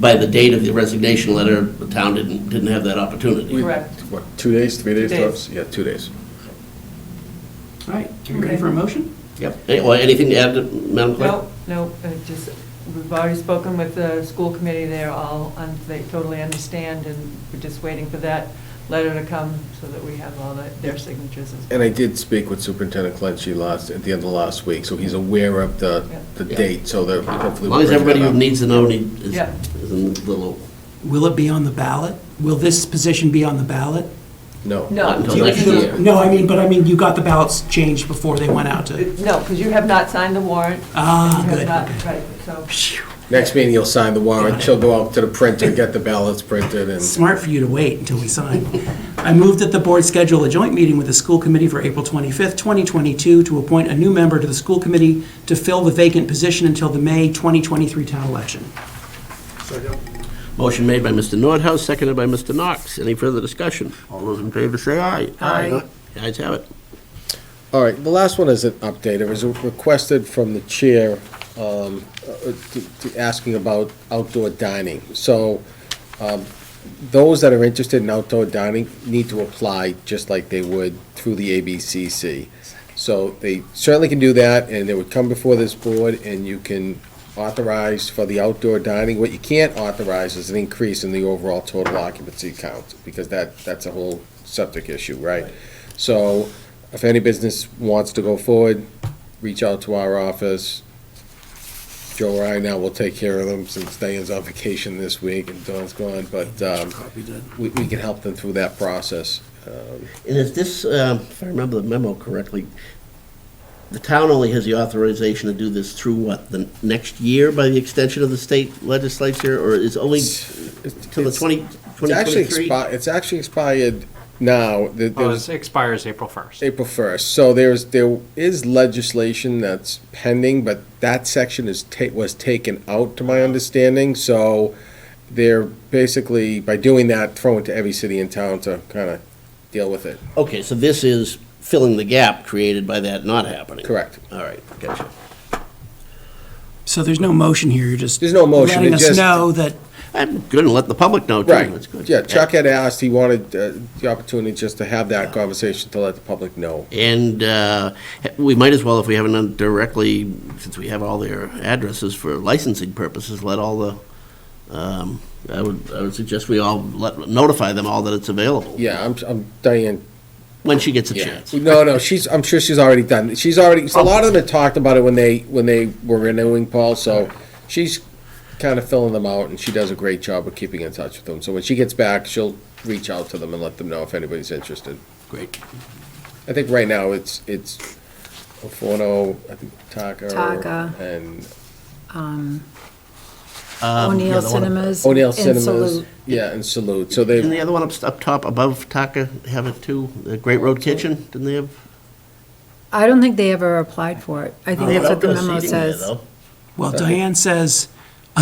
by the date of the resignation letter, the town didn't, didn't have that opportunity. Correct. What, two days, three days Two tops? Yeah, two days. All right, are you ready for a motion? Yep. Any- Well, anything to add, Madam Clerk? No, no, uh, just, we've already spoken with the school committee, they're all, un- they totally understand, and we're just waiting for that letter to come so that we have all the- their signatures. as- And I did speak with Superintendent Clancy last, at the end of last week, so he's aware of the, the Yeah. date, so that hopefully. As we'll long as bring everybody that who up. needs to know need- is Yeah. is in the loop. Will it be on the ballot? Will this position be on the ballot? No. No. Until next year. No, I mean, but I mean, you got the ballots changed before they went out to, No, because you have not signed the warrant. Ah, and you have good, not- okay. Right, so, Phew, Next meeting, you'll sign the warrant, she'll go out to the printer, get the ballots printed, and smart for you to wait until we sign. I move that the board schedule a joint meeting with the school committee for April 25th, 2022, to appoint a new member to the school committee to fill the vacant position until the May 2023 town election. Motion made by Mr. Nordhaus, seconded by Mr. Knox. Any further discussion? All those in favor say aye. Aye. The Ayes have it. All right, the last one is an update. It was requested from the chair, um, uh, to- to asking about outdoor dining. So um, those that are interested in outdoor dining need to apply just like they would through the ABCC. So they certainly can do that, and they would come before this board, and you can authorize for the outdoor dining. What you can't authorize is an increase in the overall total occupancy count, because that, that's a whole septic issue, right? So if any business wants to go forward, reach out to our office. Joe or I now will take care of them since Diane's on vacation this week and Dawn's gone, but um, we, we can help them through that process. Um, And is this, um, if I remember the memo correctly, the town only has the authorization to do this through what, the next year by the extension of the state legislature, or is only till the 20, It's actually 2023? expi- It's actually expired now. There- there Well, was- Oh, it expires April 1st. April first. So there's, there is legislation that's pending, but that section is ta, was taken out, to my understanding, so they're basically, by doing that, throwing to every city in town to kind of deal with it. Okay, so this is filling the gap created by that not happening? Correct. All right, gotcha. So there's no motion here, you're just. There's no motion, Letting it us just- know that I'm good, and let the public know, too. That's Right, good. yeah, Chuck had asked, he wanted uh, the opportunity just to have that conversation to let the public know. And uh, we might as well, if we haven't done directly, since we have all their addresses for licensing purposes, let all the, um, I would, I would suggest we all let, notify them all that it's available. Yeah, I'm, I'm, Diane When she gets a Yeah. chance. No, no, she's, I'm sure she's already done, she's already, so a lot of them had talked about it when they, when they were renewing Paul, so she's kind of filling them out, and she does a great job of keeping in touch with them, so when she gets back, she'll reach out to them and let them know if anybody's interested. Great. I think right now it's, it's Ofono, I think Taka. Taka. And yeah, O'Neill the one- Cinemas. O'Neill and Cinemas, Salute. yeah, and Salute, so Didn't the they, other one up, up top above Taka have it too? The Great Road Kitchen, didn't they have? I don't think they ever applied for it. I think They that's have what the outdoor memo seating there, says. though. Well, Diane says,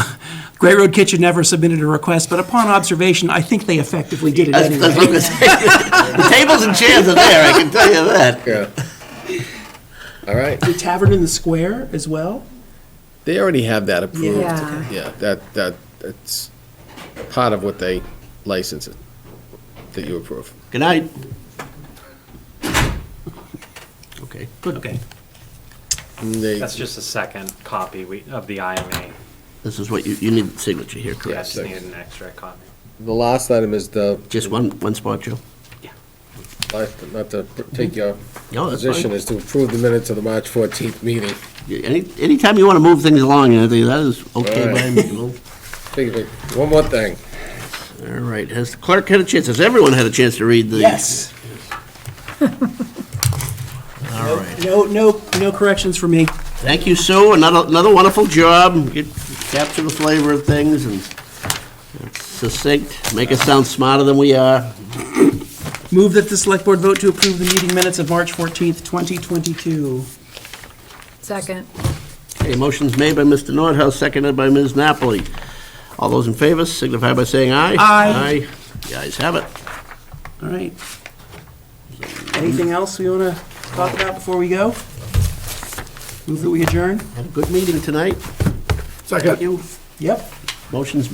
Great Road Kitchen never submitted a request, but upon observation, I think they effectively did it That's- that's what anyway. I'm gonna say. The tables and chairs are there, I can tell you that. yeah. All right, The Tavern in the Square as well? they already have that approved, Yeah. yeah, that, that, that's part of what they license it, that you approve. Good night. Okay. Good. Okay. And They, That's just a second copy we- of the IMA. This is what you, you need signature here, Yeah, I correct? just needed an extra copy. the last item is the, Just one, one spot, Joe? not to take your No, Mm-hmm. that's position, fine. is to approve the minutes of the March 14th meeting. Any, anytime you want to move things along, Anthony, that is okay All by right. me. Well, Think of it. One more thing. All right, has the clerk had a chance, has everyone had a chance to read the? Yes. All right. No, no, no corrections for me. Thank you, Sue, another, another wonderful job, You capture the flavor of things and it's succinct, make us sound smarter than we are. Move that the select board vote to approve the meeting minutes of March 14th, 2022. Second. Okay, motion's made by Mr. Nordhaus, seconded by Ms. Napoli. All those in favor signify by saying aye. Aye. Aye, the ayes have it. All right. Anything else we want to talk about before we go? Move that we adjourn? Had a good meeting tonight. Second. Yep. Motion's